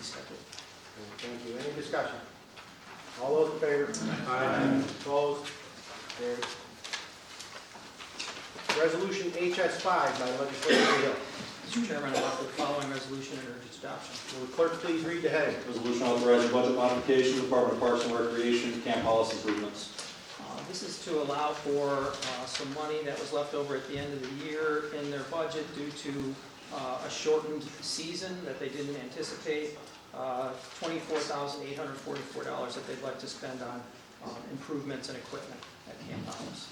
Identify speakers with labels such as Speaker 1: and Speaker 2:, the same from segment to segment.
Speaker 1: Second.
Speaker 2: Thank you. Any discussion? All those in favor? Aye. Opposed? Carried. Resolution HS five by legislator Hill.
Speaker 1: Mr. Chairman, I offer the following resolution and urge its adoption.
Speaker 2: Will the clerk please read the heading?
Speaker 3: Resolution authorizing budget modification, Department of Parks and Recreation, camp policy improvements.
Speaker 1: Uh, This is to allow for uh, some money that was left over at the end of the year in their budget due to uh, a shortened season that they didn't anticipate, uh, $24,844 that they'd like to spend on um, improvements and equipment at Camp Thomas.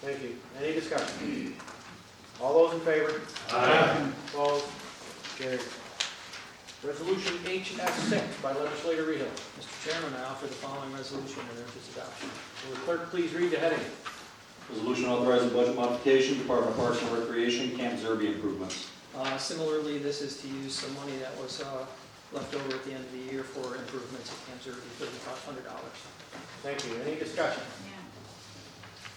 Speaker 2: Thank you. Any discussion? All those in favor? Aye. Opposed? Carried. Resolution HS six by legislator Hill.
Speaker 1: Mr. Chairman, I offer the following resolution and urge its adoption.
Speaker 2: Will the clerk please read the heading?
Speaker 3: Resolution authorizing budget modification, Department of Parks and Recreation, camp Zerby improvements.
Speaker 1: Uh, Similarly, this is to use some money that was uh, left over at the end of the year for improvements at Camp Zerby, $3,500.
Speaker 2: Thank you. Any discussion?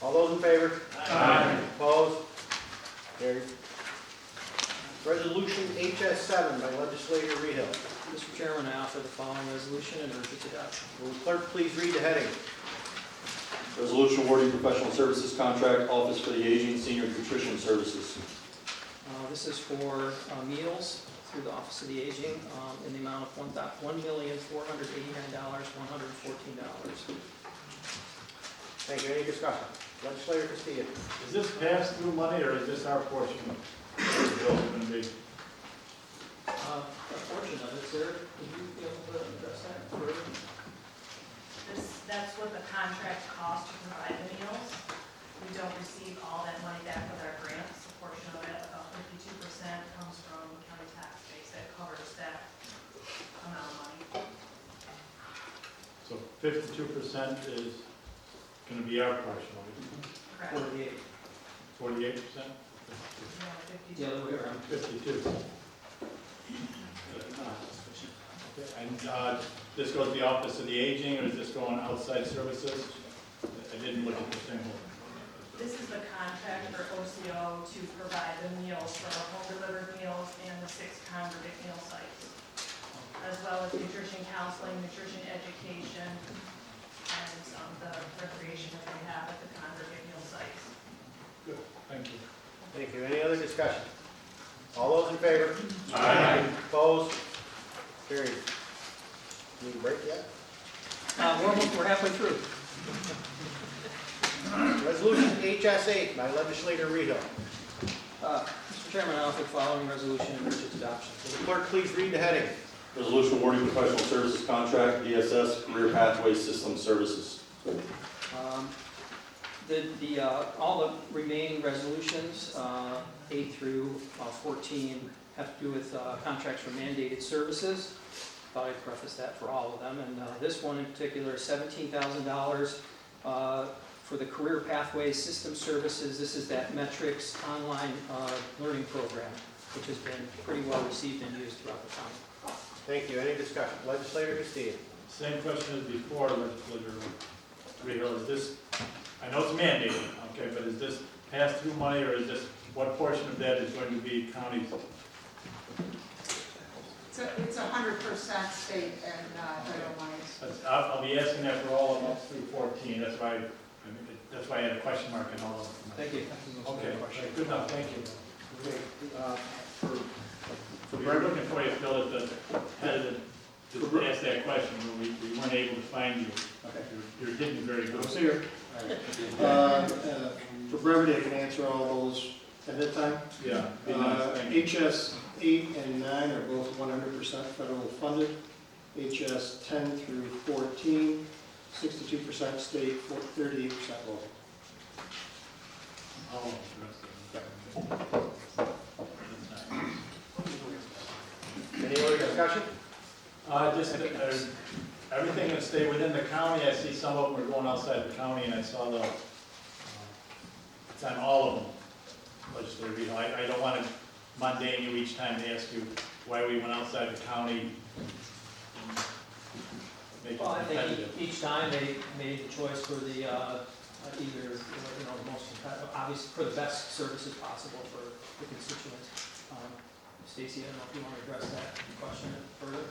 Speaker 2: All those in favor? Aye. Opposed? Carried. Resolution HS seven by legislator Rehill.
Speaker 1: Mr. Chairman, I offer the following resolution and urge its adoption.
Speaker 2: Will the clerk please read the heading?
Speaker 3: Resolution awarding professional services contract, Office for the Aging, Senior Nutrition Services.
Speaker 1: Uh, This is for uh, meals through the Office of the Aging um, in the amount of one thou- $1,489,114.
Speaker 2: Thank you. Any discussion? Legislator Castillo.
Speaker 4: Is this pass-through money, or is this our portion of the bill going to be?
Speaker 1: Uh, A portion of it, sir, would you be able to address that? Or-
Speaker 5: This, that's what the contract costs to provide the meals. We don't receive all that money back with our grants. A portion of it, about fifty-two percent, comes from county tax base that covers that amount of money.
Speaker 4: So fifty-two percent is going to be our portion,
Speaker 5: Correct?
Speaker 1: Or the,
Speaker 4: forty-eight percent?
Speaker 5: You want fifty-two?
Speaker 1: the other way around.
Speaker 4: Fifty-two. And uh, this goes to the Office of the Aging, or is this going outside services? I didn't look at the thing.
Speaker 5: This is the contract for OCO to provide the meals for our home delivered meals and the six congregate meal sites, as well as nutrition counseling, nutrition education, and um, the recreation that we have at the congregate meal sites.
Speaker 4: Thank you.
Speaker 2: Thank you. Any other discussion? All those in favor? Aye. Opposed? Carried. Need a break yet?
Speaker 1: Uh, We're we're halfway through.
Speaker 2: Resolution HS eight by legislator Rehill.
Speaker 1: Uh, Mr. Chairman, I offer the following resolution and urge its adoption.
Speaker 2: Will the clerk please read the heading?
Speaker 3: Resolution awarding professional services contract, DSS, Career Pathway System Services.
Speaker 1: Um, The, the, uh, all the remaining resolutions, uh, eight through uh, 14, have to do with uh, contracts for mandated services. Thought I'd preface that for all of them, and uh, this one in particular, $17,000 uh, for the Career Pathways System Services. This is that metrics online uh, learning program, which has been pretty well received and used throughout the county.
Speaker 2: Thank you. Any discussion? Legislator Castillo.
Speaker 4: Same question as before, legislator Rehill, is this, I know it's mandated, okay, but is this pass-through money, or is this, what portion of that is going to be county's?
Speaker 6: It's a, it's a hundred percent state and
Speaker 5: 아,
Speaker 6: uh,
Speaker 5: 네.
Speaker 6: federal monies.
Speaker 4: That's- I'll, I'll be asking that for all of them through fourteen, that's why, I- that's why I had a question mark in all of them.
Speaker 1: Thank you.
Speaker 4: Okay, good enough, thank you.
Speaker 2: Uh, for-
Speaker 4: We were looking for you, Phil, at the head of the, to ask that question, but we, we weren't able to find you. You're you're hidden very
Speaker 7: I
Speaker 4: good.
Speaker 7: was here. Uh, uh, For brevity, I can answer all those at that time.
Speaker 4: Yeah. be nice,
Speaker 7: Uh,
Speaker 4: thank you.
Speaker 7: HS eight and nine are both one hundred percent federal funded. HS ten through 14, 62 percent state, thirty-eight percent local.
Speaker 4: All of the rest of them. That's nice.
Speaker 2: Any other discussion?
Speaker 4: Uh, just, that there's- everything that stay within the county, I see some of them are going outside the county, and I saw the, uh, it's on all of them, legislative, you know, I, I don't want to mundane you each time to ask you why we went outside the county. and Make it
Speaker 1: Well, I think
Speaker 4: competitive.
Speaker 1: e- each time they made the choice for the, uh, either, you know, the most, competitive- obvious, for the best services possible for the constituents. Um, Stacy, I don't know if you want to address that question further?